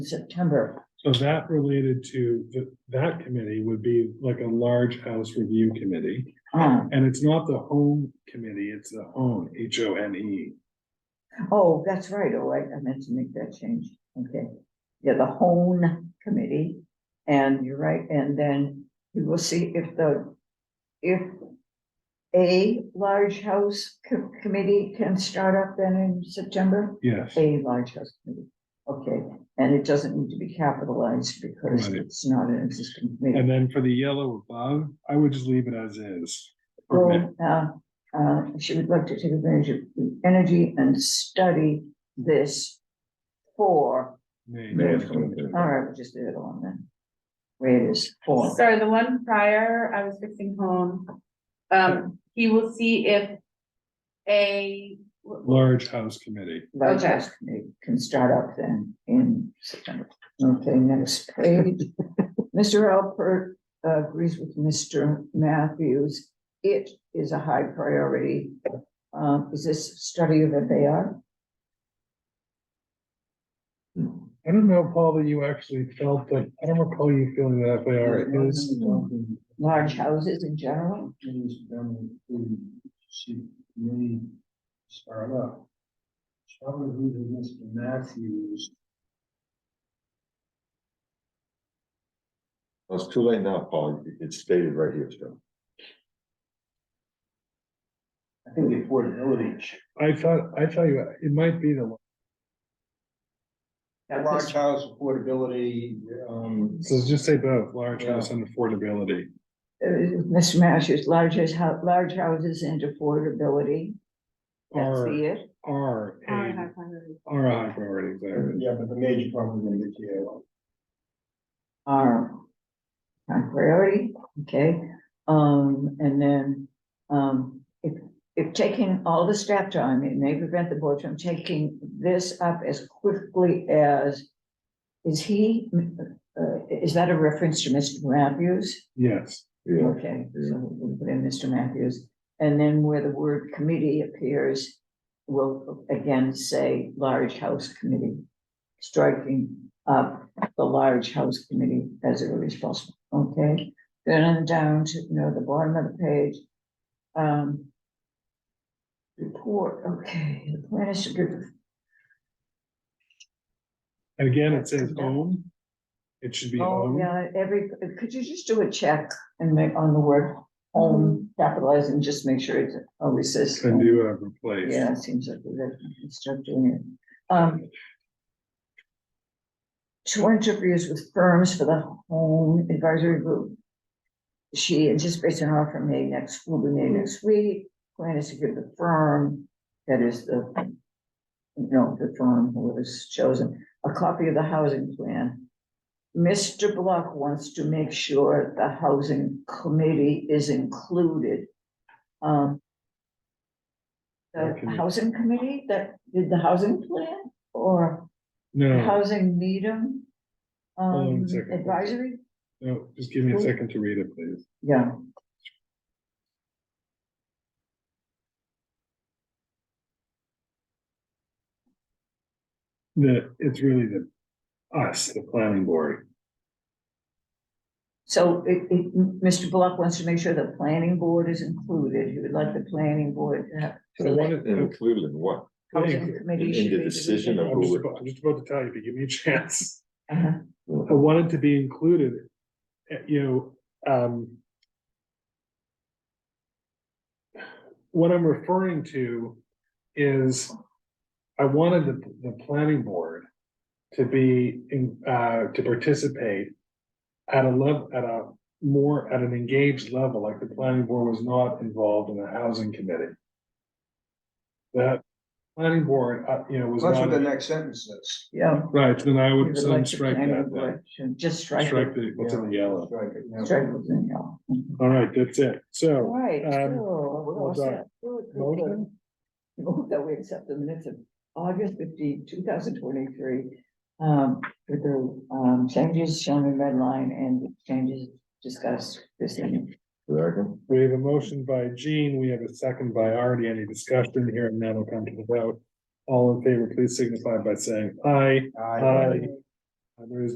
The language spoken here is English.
September. So that related to, th- that committee would be like a large house review committee. Uh, And it's not the home committee, it's the home, H O N E. Oh, that's right. Oh, I I meant to make that change. Okay. Yeah, the hone committee. And you're right. And then we will see if the, if a large house co- committee can start up then in September. Yes, A large house committee. Okay. And it doesn't need to be capitalized because Right. it's not an existing committee. and then for the yellow above, I would just leave it as is. Okay. Well, uh, uh, she would like to take advantage of the energy and study this for, Nay, May nay, of nay. all right, we'll just leave it alone then. Where it is for. Sorry, the one prior, I was fixing home. Um, he will see if a, Large house committee. Large Okay. house committee Can start up then in September. Okay, next page. Mr. Alpert uh, agrees with Mr. Matthews. It is a high priority. Uh, is this study of FAR? I don't know, Paul, that you actually felt that, I don't recall you feeling that FAR is. Large houses in general? Things done in, she may start up. Probably the Mr. Matthews. Well, It's too late now, Paul. It- It's stated right here, so. I think the affordability. ch- I thought, I thought you, it might be the, Yeah, 'cause- Large house affordability, um. so just say both, large house and affordability. uh, Mr. Masters, largest hou- large houses and affordability, that's Are, the it. are a, are a high priority, exactly. Yeah, but the major problem we're gonna get to yellow. Are high priority, okay, um, and then, um, if, if taking all the staff time, it may prevent the board from taking this up as quickly as, is he, uh, is that a reference to Mr. Matthews? Yes, Yeah, Okay, so we'll put in Mr. Matthews, and then where the word committee appears, we'll again say large house committee. Striking up the large house committee as early as possible, okay? Then on down to, you know, the bottom of the page. Um. Report, okay, the plan is to give and again, it says home. It should be Oh, home. yeah, every, could you just do a check and make on the word home, capitalize and just make sure it always says. Can do a replace. Yeah, it seems like we're gonna start doing it. Um. Two interviews with firms for the home advisory group. She anticipates an offer made next, will be made next week. Plan is to give the firm, that is the. No, the firm who was chosen, a copy of the housing plan. Mr. Block wants to make sure the housing committee is included. Um, Our the committee. housing committee that did the housing plan or No, housing medium? Hold on a Um, second. advisory, no, just give me a second to read it, please. yeah, The, it's really the, us, the planning board. so it, it, Mr. Block wants to make sure the planning board is included, he would like the planning board to have. So I wanted- included in what? Housing I'm committee in should the be- decision of- just about- I'm just about to tell you, but give me a chance. Uh-huh. I wanted to be included, eh, you know, um. What I'm referring to is, I wanted the, the planning board to be in, uh, to participate. At a level, at a more, at an engaged level, like the planning board was not involved in the housing committee. That planning board, uh, you know, was That's what the not, next sentence says. Yeah. right, then I he would, would so like I'd the strike planning that then. board to Just strike Strike it, the, what's in the Yeah, yellow? strike it, yeah. strike it, then, yeah. All right, that's it. So, Right. um, so we're all what's our set. Good, good, good. motion? Move that we accept the minutes of August 15, 2023, Um, with the, um, changes shown in red line and the changes discussed this evening. Second? we have a motion by Gene, we have a second by Artie, any discussion here, and now we'll come to the vote. All in favor, please signify by saying aye. Aye. Aye. Uh, There is